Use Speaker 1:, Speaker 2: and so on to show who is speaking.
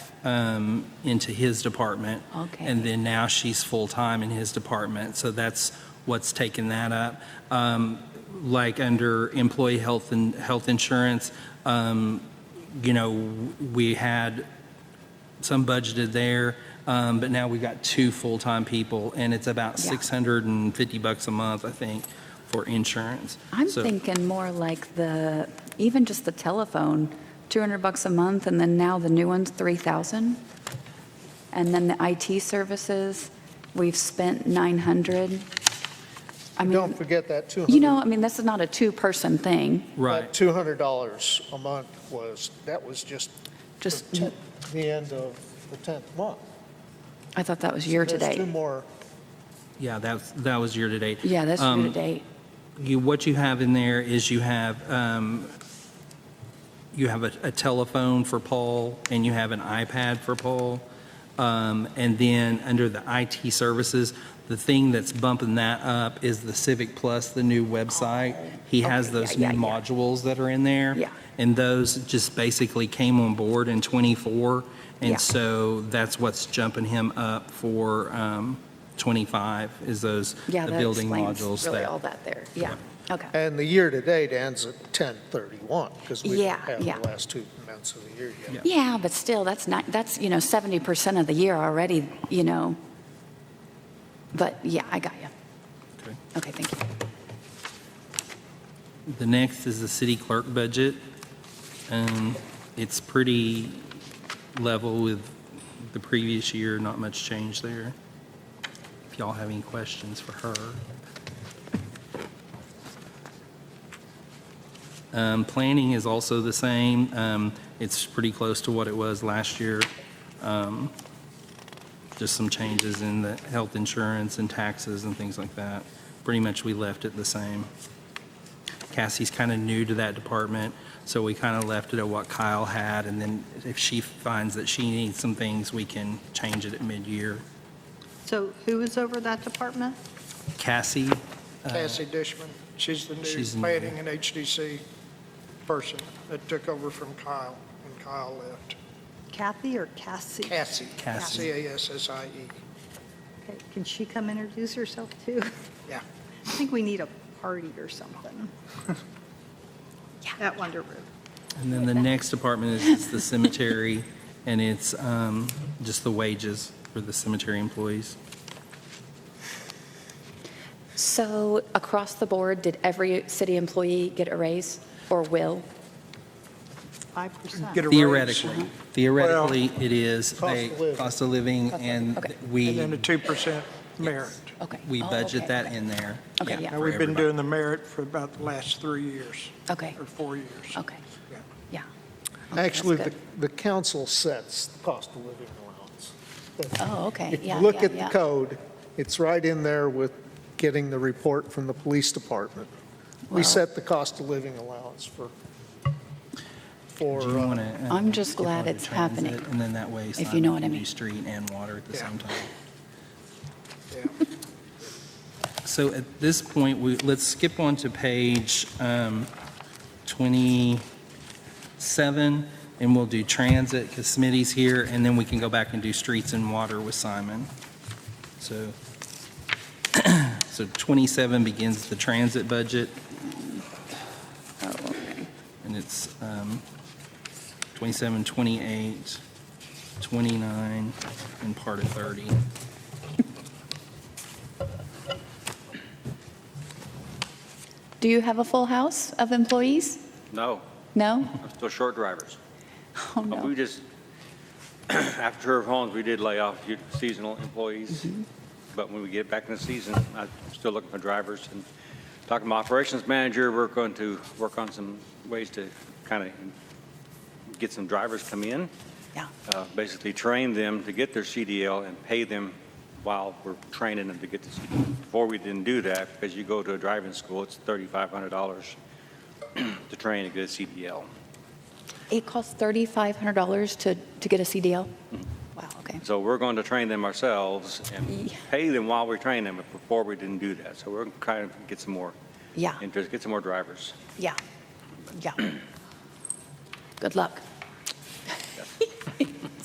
Speaker 1: um, into his department.
Speaker 2: Okay.
Speaker 1: And then now she's full-time in his department. So that's what's taken that up. Um, Like under employee health and health insurance, um, you know, we had some budgeted there, um, but now we've got two full-time people, and it's about
Speaker 2: Yeah.
Speaker 1: 650 bucks a month, I think, for insurance.
Speaker 2: I'm
Speaker 1: So-
Speaker 2: thinking more like the, even just the telephone, 200 bucks a month, and then now the new one's 3,000. And then the IT services, we've spent 900. I
Speaker 3: Don't
Speaker 2: mean,
Speaker 3: forget that 200.
Speaker 2: you know, I mean, this is not a two-person thing,
Speaker 1: Right,
Speaker 3: $200 a month was, that was just
Speaker 2: just,
Speaker 3: the tenth- the end of the 10th month.
Speaker 2: I thought that was year-to-date.
Speaker 3: There's two more,
Speaker 1: yeah, that, was- that was year-to-date.
Speaker 2: Yeah, that's
Speaker 1: Um,
Speaker 2: year-to-date.
Speaker 1: You, what you have in there is you have, um, you have a a telephone for Paul, and you have an iPad for Paul. Um, And then, under the IT services, the thing that's bumping that up is the Civic Plus, the new website. He has
Speaker 2: Oh, Okay, yeah,
Speaker 1: those
Speaker 2: yeah,
Speaker 1: new
Speaker 2: yeah.
Speaker 1: modules that are in there.
Speaker 2: Yeah.
Speaker 1: And those just basically came on board in '24.
Speaker 2: Yeah.
Speaker 1: And so that's what's jumping him up for um, '25, is those,
Speaker 2: Yeah,
Speaker 1: the
Speaker 2: that
Speaker 1: building
Speaker 2: explains
Speaker 1: modules
Speaker 2: really
Speaker 1: that
Speaker 2: all that there. Yeah, okay.
Speaker 3: and the year-to-date ends at 10/31, because we
Speaker 2: Yeah,
Speaker 3: don't have
Speaker 2: yeah.
Speaker 3: the last two months of the year yet.
Speaker 2: Yeah, but still, that's not, that's, you know, 70% of the year already, you know. But yeah, I got you.
Speaker 1: Okay.
Speaker 2: Okay, thank you.
Speaker 1: The next is the city clerk budget. Um, It's pretty level with the previous year, not much change there. If y'all have any questions for her. Um, Planning is also the same. Um, It's pretty close to what it was last year. Um, Just some changes in the health insurance and taxes and things like that. Pretty much we left it the same. Cassie's kind of new to that department, so we kind of left it at what Kyle had, and then if she finds that she needs some things, we can change it at mid-year.
Speaker 4: So who is over that department?
Speaker 1: Cassie,
Speaker 5: Cassie Dishman. She's the
Speaker 1: uh, she's
Speaker 5: new
Speaker 1: new.
Speaker 5: planning and HDC person that took over from Kyle when Kyle left.
Speaker 4: Kathy or Cassie?
Speaker 5: Cassie.
Speaker 1: Cassie.
Speaker 5: C-A-S-S-I-E.
Speaker 4: Okay, Can she come introduce herself too?
Speaker 5: Yeah.
Speaker 4: I think we need a party or something. At Wonder Room.
Speaker 1: and then the next department is is the cemetery, and it's um, just the wages for the cemetery employees.
Speaker 2: So across the board, did every city employee get a raise or will?
Speaker 4: 5%.
Speaker 5: Get a raise.
Speaker 1: Theoretically, theoretically, it is
Speaker 3: Cost
Speaker 1: a
Speaker 3: of living.
Speaker 1: cost of living, and
Speaker 2: Okay.
Speaker 5: And then a
Speaker 1: we,
Speaker 5: 2% merit.
Speaker 2: Okay.
Speaker 1: we
Speaker 2: Oh, okay,
Speaker 1: budget that
Speaker 2: okay.
Speaker 1: in there.
Speaker 2: Okay, yeah.
Speaker 5: Now,
Speaker 1: for
Speaker 5: we've been
Speaker 1: everybody.
Speaker 5: doing the merit for about the last three years.
Speaker 2: Okay.
Speaker 5: Or four years.
Speaker 2: Okay,
Speaker 5: Yeah.
Speaker 2: yeah. Okay,
Speaker 3: Actually,
Speaker 2: Oh, that's
Speaker 3: the, the council sets the cost of living allowance.
Speaker 2: good. Oh, okay,
Speaker 3: If you
Speaker 2: yeah,
Speaker 3: look
Speaker 2: yeah,
Speaker 3: at the
Speaker 2: yeah.
Speaker 3: code, it's right in there with getting the report from the police department. We
Speaker 2: Wow.
Speaker 3: set the cost of living allowance for, for.
Speaker 1: Do you
Speaker 3: uh,
Speaker 1: wanna, uh,
Speaker 2: I'm just
Speaker 1: get
Speaker 2: glad
Speaker 1: public
Speaker 2: it's happening,
Speaker 1: transit, And then that way it's
Speaker 2: if
Speaker 1: not
Speaker 2: you know what I
Speaker 1: community
Speaker 2: mean.
Speaker 1: street and water at the
Speaker 5: Yeah.
Speaker 1: same time.
Speaker 5: Yeah.
Speaker 1: So at this point, we, let's skip on to page um, 27, and we'll do transit, because Smitty's here, and then we can go back and do streets and water with Simon. So, so 27 begins the transit budget,
Speaker 2: Oh, okay.
Speaker 1: and it's um, 27, 28, 29, and part of 30.
Speaker 2: Do you have a full house of employees?
Speaker 6: No,
Speaker 2: No?
Speaker 6: I'm still short drivers.
Speaker 2: Oh,
Speaker 6: But We
Speaker 2: no.
Speaker 6: just, after Turf Homes, we did lay off few seasonal employees.
Speaker 2: Mm-hmm.
Speaker 6: But when we get back in the season, I'm still looking for drivers. And talking to my operations manager, we're going to work on some ways to kind of get some drivers come in,
Speaker 2: Yeah,
Speaker 6: uh, basically train them to get their CDL and pay them while we're training them to get the CDL. Before, we didn't do that because you go to a driving school, it's $3,500 to train to get a CDL.
Speaker 2: It costs $3,500 to, to get a CDL?
Speaker 1: Mm-hmm.
Speaker 2: Wow, okay.
Speaker 6: So we're going to train them ourselves and
Speaker 2: Yeah.
Speaker 6: pay them while we train them, but before we didn't do that. So we're trying to get some more
Speaker 2: Yeah,
Speaker 6: interest, get some more drivers.
Speaker 2: yeah, yeah. Good luck.